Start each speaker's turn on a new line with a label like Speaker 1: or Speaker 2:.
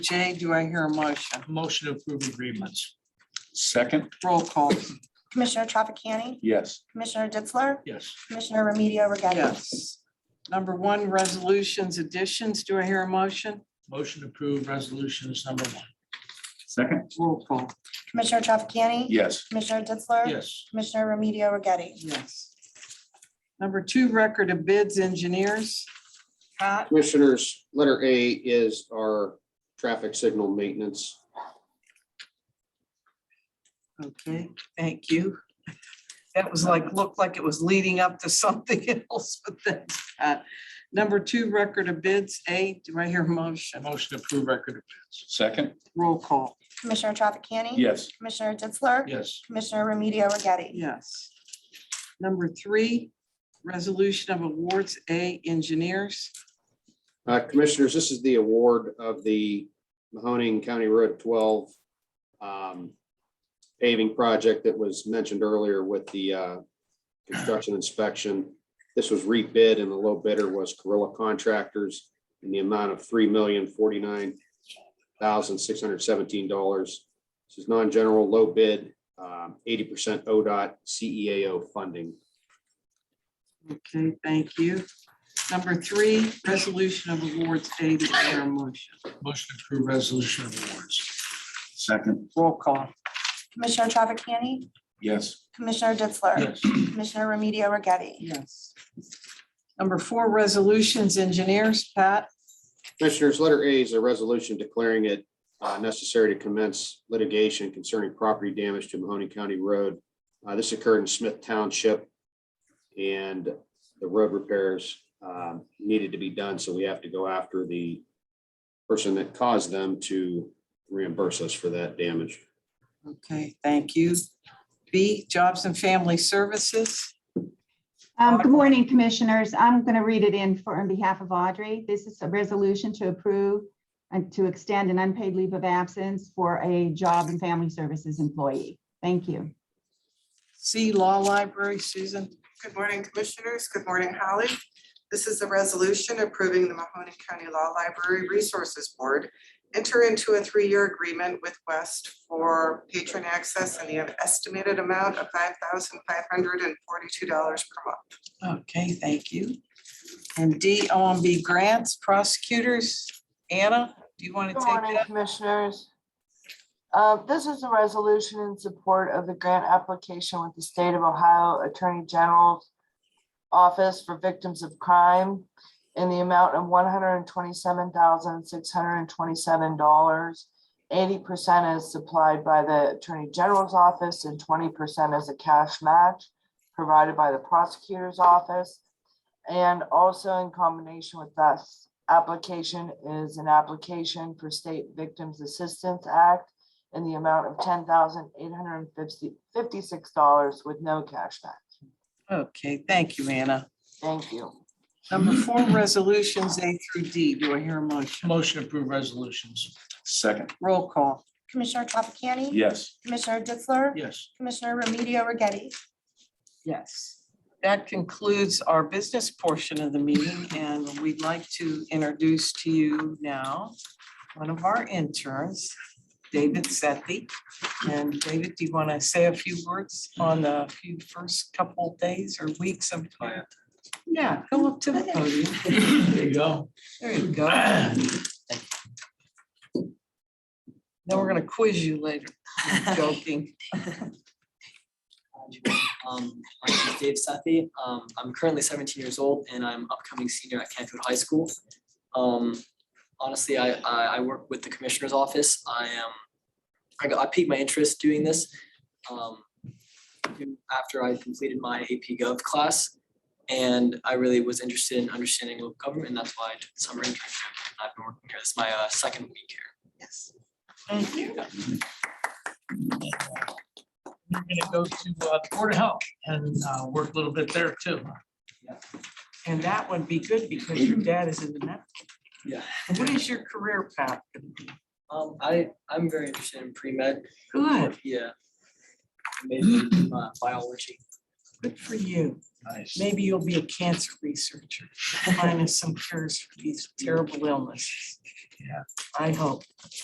Speaker 1: J, do I hear a motion?
Speaker 2: Motion to approve agreements.
Speaker 3: Second,
Speaker 1: Roll call,
Speaker 4: Commissioner Trafficani,
Speaker 3: yes.
Speaker 4: Commissioner Ditzler,
Speaker 2: Yes.
Speaker 4: Commissioner Remedio Agati.
Speaker 1: yes. Number one, resolutions, additions, do I hear a motion?
Speaker 2: Motion to approve resolutions number one.
Speaker 3: Second,
Speaker 1: Roll call,
Speaker 4: Commissioner Trafficani.
Speaker 3: yes.
Speaker 4: Commissioner Ditzler.
Speaker 2: Yes.
Speaker 4: Commissioner Remedio Agati.
Speaker 1: yes. Number two, record of bids, engineers. Pat,
Speaker 5: Commissioners, letter A is our traffic signal maintenance.
Speaker 1: okay, thank you. That was like, looked like it was leading up to something else, but that's Pat. Number two, record of bids, A, do I hear a motion?
Speaker 2: Motion to approve record of bids.
Speaker 3: Second,
Speaker 1: Roll call,
Speaker 4: Commissioner Trafficani.
Speaker 3: yes.
Speaker 4: Commissioner Ditzler.
Speaker 2: Yes.
Speaker 4: Commissioner Remedio Agati.
Speaker 1: yes. Number three, resolution of awards, A, engineers.
Speaker 5: Uh, Commissioners, this is the award of the Mahoning County Road 12 um, paving project that was mentioned earlier with the uh, construction inspection. This was rebid and the low bidder was Gorilla Contractors in the amount of three million forty-nine thousand six hundred seventeen dollars. This is non-general, low bid, um, eighty percent ODOT CEAO E funding.
Speaker 1: Okay, thank you. Number three, resolution of awards A to our motion.
Speaker 2: Motion to approve resolution of awards.
Speaker 3: Second,
Speaker 1: Roll call.
Speaker 4: Commissioner Trafficani,
Speaker 3: yes.
Speaker 4: Commissioner Ditzler.
Speaker 2: Yes.
Speaker 4: Commissioner Remedio Agati.
Speaker 1: Yes. Number four, resolutions, engineers, Pat.
Speaker 5: Commissioners, letter A is a resolution declaring it uh, necessary to commence litigation concerning property damage to Mahoney County Road. Uh, This occurred in Smith Township. And the road repairs um, needed to be done, so we have to go after the person that caused them to reimburse us for that damage.
Speaker 1: Okay, thank you. B, jobs and family services.
Speaker 6: Um, Good morning, Commissioners. I'm going to read it in for, on behalf of Audrey. This is a resolution to approve and to extend an unpaid leave of absence for a job and family services employee. Thank you.
Speaker 1: C, law library, Susan.
Speaker 7: Good morning, Commissioners. Good morning, Holly. This is a resolution approving the Mahoning County Law Library Resources Board enter into a three-year agreement with West for patron access in the estimated amount of five thousand five hundred and forty-two dollars per month.
Speaker 1: Okay, thank you. And D, OMB grants, prosecutors. Anna, do you want to
Speaker 8: Good
Speaker 1: take
Speaker 8: morning,
Speaker 1: that?
Speaker 8: Commissioners. Uh, This is a resolution in support of the grant application with the State of Ohio Attorney General's Office for Victims of Crime in the amount of one hundred and twenty-seven thousand, six hundred and twenty-seven dollars. Eighty percent is supplied by the Attorney General's Office and twenty percent is a cash match provided by the Prosecutor's Office. And also in combination with this application is an application for State Victims Assistance Act in the amount of ten thousand eight hundred and fifty, fifty-six dollars with no cash back.
Speaker 1: Okay, thank you, Anna.
Speaker 8: Thank you.
Speaker 1: Number four, resolutions A through D. Do I hear a motion?
Speaker 2: Motion to approve resolutions.
Speaker 3: Second,
Speaker 1: Roll call.
Speaker 4: Commissioner Trafficani.
Speaker 3: yes.
Speaker 4: Commissioner Ditzler.
Speaker 2: Yes.
Speaker 4: Commissioner Remedio Agati.
Speaker 1: Yes. That concludes our business portion of the meeting, and we'd like to introduce to you now one of our interns, David Sethi. And David, do you want to say a few words on the few first couple days or weeks of?
Speaker 2: Yeah.
Speaker 1: Yeah, go up to the podium.
Speaker 2: There you go.
Speaker 1: There you go. Then we're gonna quiz you later. I'm Joking.
Speaker 9: Um, my name is Dave Sethi. Um, I'm currently seventeen years old and I'm upcoming senior at Canfield High School. Um, honestly, I, I, I work with the commissioner's office. I am, I got, I piqued my interest doing this. Um, after I completed my AP Gov class. And I really was interested in understanding local government. and That's why I took the summer internship. I've been working here. This is my, uh, second week here.
Speaker 1: Yes. Thank you.
Speaker 2: We're gonna go to uh, Board of Health and uh, work a little bit there too.
Speaker 1: And that would be good because your dad is in the net.
Speaker 9: Mm-hmm. Yeah.
Speaker 1: What is your career path?
Speaker 9: Um, I, I'm very interested in pre-med.
Speaker 1: Good.
Speaker 9: Yeah. Maybe uh, biology.
Speaker 1: Good for you.
Speaker 2: Nice.
Speaker 1: Maybe you'll be a cancer researcher, minus some cures for these terrible illnesses.
Speaker 2: Yeah.
Speaker 1: I hope.